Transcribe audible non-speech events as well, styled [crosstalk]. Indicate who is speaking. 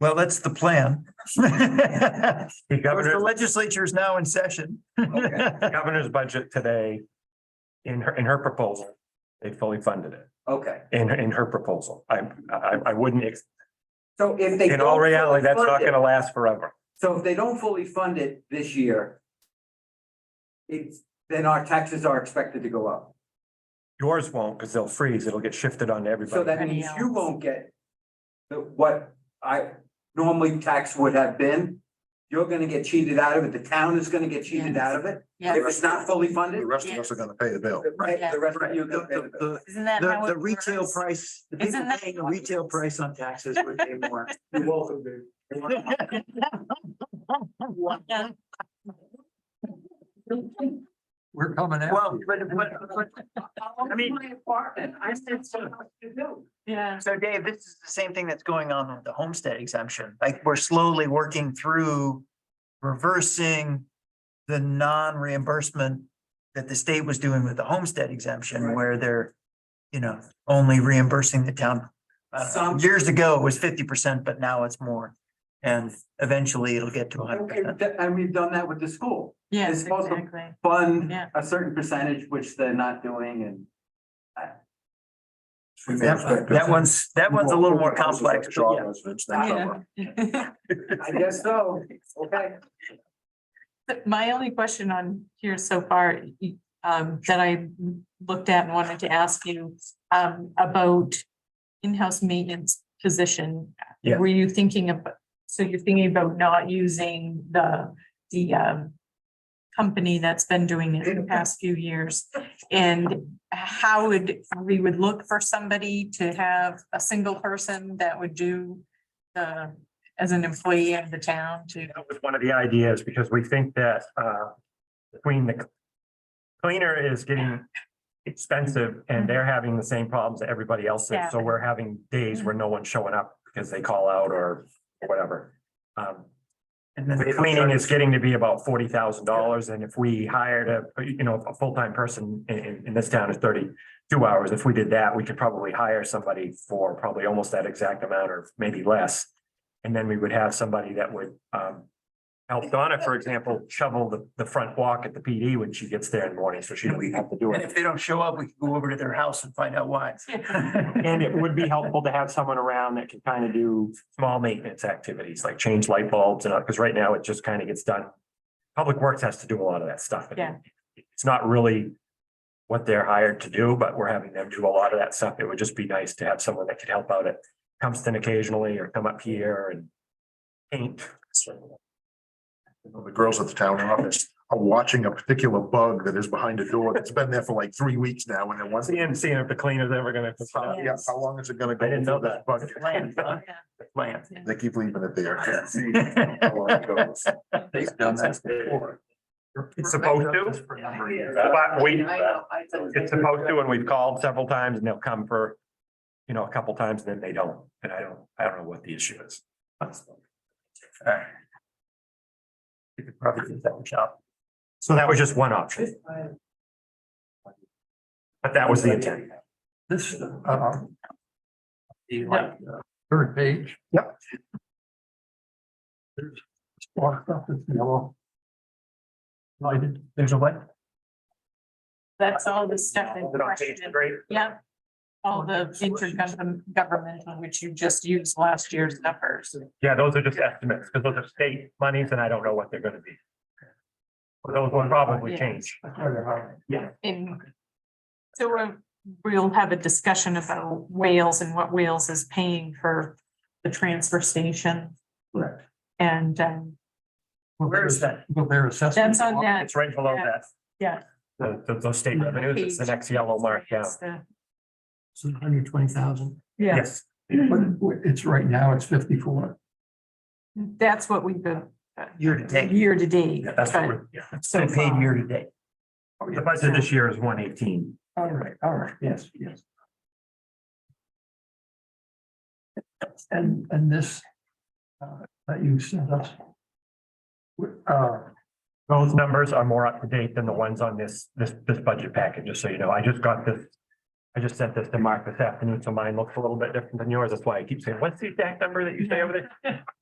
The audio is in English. Speaker 1: Well, that's the [laughs] plan.
Speaker 2: The
Speaker 1: The
Speaker 2: governor's,
Speaker 1: legislature is now in session.
Speaker 2: the governor's budget today, in her, in her proposal, they fully funded it,
Speaker 3: Okay,
Speaker 2: in, in her proposal. I, I, I wouldn't, ex-
Speaker 3: so if they.
Speaker 2: in all
Speaker 3: don't fully
Speaker 2: reality, that's
Speaker 3: fund
Speaker 2: not
Speaker 3: it-
Speaker 2: gonna last forever.
Speaker 3: So if they don't fully fund it this year. It's, then our taxes are expected to go up.
Speaker 2: Yours won't, because they'll freeze, it'll get shifted on to
Speaker 3: So that
Speaker 2: everybody.
Speaker 3: means you won't get. The, what I normally tax would have been. You're gonna get cheated out of it. The town is gonna get cheated
Speaker 4: Yes.
Speaker 3: out of it. If
Speaker 4: Yes,
Speaker 3: it's not fully funded.
Speaker 5: The rest of us are gonna pay the bill.
Speaker 3: Right, the rest of you.
Speaker 1: The, [laughs] the- the-
Speaker 4: isn't that
Speaker 1: the-
Speaker 4: how it
Speaker 1: the retail
Speaker 4: works?
Speaker 1: price, the
Speaker 4: Isn't
Speaker 1: people
Speaker 4: that
Speaker 1: paying a
Speaker 4: how it
Speaker 1: retail
Speaker 4: works?
Speaker 1: price on taxes would pay more.
Speaker 4: Yeah.
Speaker 5: We're coming
Speaker 1: [laughs] Well, but, but, but, I mean.
Speaker 4: Yeah.
Speaker 1: So Dave, this is the same thing that's going on with the homestead exemption. Like, we're slowly working through reversing the non-reimbursement that the state was doing with the homestead exemption
Speaker 3: Right.
Speaker 1: where they're, you know, only reimbursing the town. I don't know,
Speaker 3: Some-
Speaker 1: Years ago, it was fifty percent, but now it's more. And eventually it'll get to hundred percent.
Speaker 3: And we've done that with the school.
Speaker 4: Yes,
Speaker 3: It's also-
Speaker 4: exactly.
Speaker 3: Fund
Speaker 4: Yeah.
Speaker 3: a certain percentage, which they're not doing and.
Speaker 1: That that one's, that one's a little more complex, but yeah.
Speaker 4: Yeah.
Speaker 3: I guess so.
Speaker 4: [laughs]
Speaker 3: Okay.
Speaker 4: But My only question on here so far, y- um, that I looked at and wanted to ask you, um, about in-house maintenance position.
Speaker 2: Yeah.
Speaker 4: Were you thinking of, so you're thinking about not using the, the, um, company that's been doing it in the past few years? And how would, we would look for somebody to have a single person that would do the, as an employee of the town to,
Speaker 2: That was one of the ideas, because we think that, uh, between the cleaner is getting expensive
Speaker 5: Mm-hmm.
Speaker 2: and they're having the same problems that everybody else is. So we're having days
Speaker 5: Mm-hmm.
Speaker 2: where no one's showing up because they call out or whatever. Um,
Speaker 1: And then
Speaker 2: The cleaning is getting to be about forty thousand dollars, and if we hired a, you know, a full-time person in, in, in this town is thirty-two hours, if we did that, we could probably hire somebody for probably almost that exact amount or maybe less. And then we would have somebody that would, um, help Donna, for example, shovel the, the front walk at the PD when she gets there in the morning, so she doesn't have to do
Speaker 1: And
Speaker 2: it.
Speaker 1: if they don't show up, we can go over to their house and find out why.
Speaker 2: And it would be helpful to have someone around that can kind of do small maintenance activities, like change light bulbs and, because right now it just kind of gets done. Public Works has to do a lot of that stuff.
Speaker 4: Yeah.
Speaker 2: It's not really what they're hired to do, but we're having them do a lot of that stuff. It would just be nice to have someone that could help out at Compton occasionally or come up here and paint.
Speaker 5: The girls at the town office are watching a particular bug that is behind a door that's been there for like three weeks now and then once.
Speaker 2: Seeing, seeing if the cleaner's ever gonna.
Speaker 5: Yeah, how long is it gonna go?
Speaker 2: Uh, I didn't know
Speaker 5: before
Speaker 2: that.
Speaker 5: bug-
Speaker 1: Plan, huh? Plan.
Speaker 5: They keep leaving it there. [laughs] How long it goes.
Speaker 1: It's
Speaker 2: They've done that before. It's supposed to. But we, it's
Speaker 3: It's
Speaker 2: supposed to, and we've called several times and they'll come for, you know, a couple times and then they don't, and I don't, I don't know what the issue is.
Speaker 1: You could probably do that job.
Speaker 2: So that was just one option, but that was the intent.
Speaker 6: This, uh. The like, uh, third page. Yep. There's a lot of stuff that's yellow. Lighted,
Speaker 1: There's a way.
Speaker 4: That's all the stuff in
Speaker 2: Is it on page
Speaker 4: question.
Speaker 2: three?
Speaker 4: Yeah. All the intergovernmental, which you just used last year's numbers.
Speaker 2: Yeah, those are just estimates, because those are state monies and I don't know what they're gonna be. But Those will probably
Speaker 4: Yeah.
Speaker 2: change.
Speaker 6: that's why they're high.
Speaker 4: In. So we're- we'll have a discussion about Wales and what Wales is paying for the transfer station.
Speaker 6: Correct.
Speaker 4: And, um,
Speaker 6: Well,
Speaker 1: Where is
Speaker 6: their-
Speaker 1: that?
Speaker 6: Well, their assessment.
Speaker 4: that's on that.
Speaker 2: It's right below that.
Speaker 4: Yeah.
Speaker 2: The- the- those state revenues, it's the
Speaker 4: page.
Speaker 2: next yellow mark down.
Speaker 4: It's the-
Speaker 6: It's hundred twenty thousand,
Speaker 4: Yeah,
Speaker 2: Yes,
Speaker 6: but it's right now, it's fifty-four.
Speaker 4: that's what we've been
Speaker 1: Year to date.
Speaker 4: year to date.
Speaker 2: Yeah, that's what
Speaker 4: but
Speaker 2: we're, yeah.
Speaker 4: so
Speaker 1: So paid
Speaker 4: far.
Speaker 1: year to date.
Speaker 2: The budget this year is one eighteen.
Speaker 6: All right, all right, yes, yes. And, and this, uh, that you sent us. w- Uh,
Speaker 2: Those numbers are more up to date than the ones on this, this, this budget package, just so you know. I just got this I just sent this to Mark this afternoon, so mine looks a little bit different than yours. That's why I keep saying, what's the exact number that you say over there?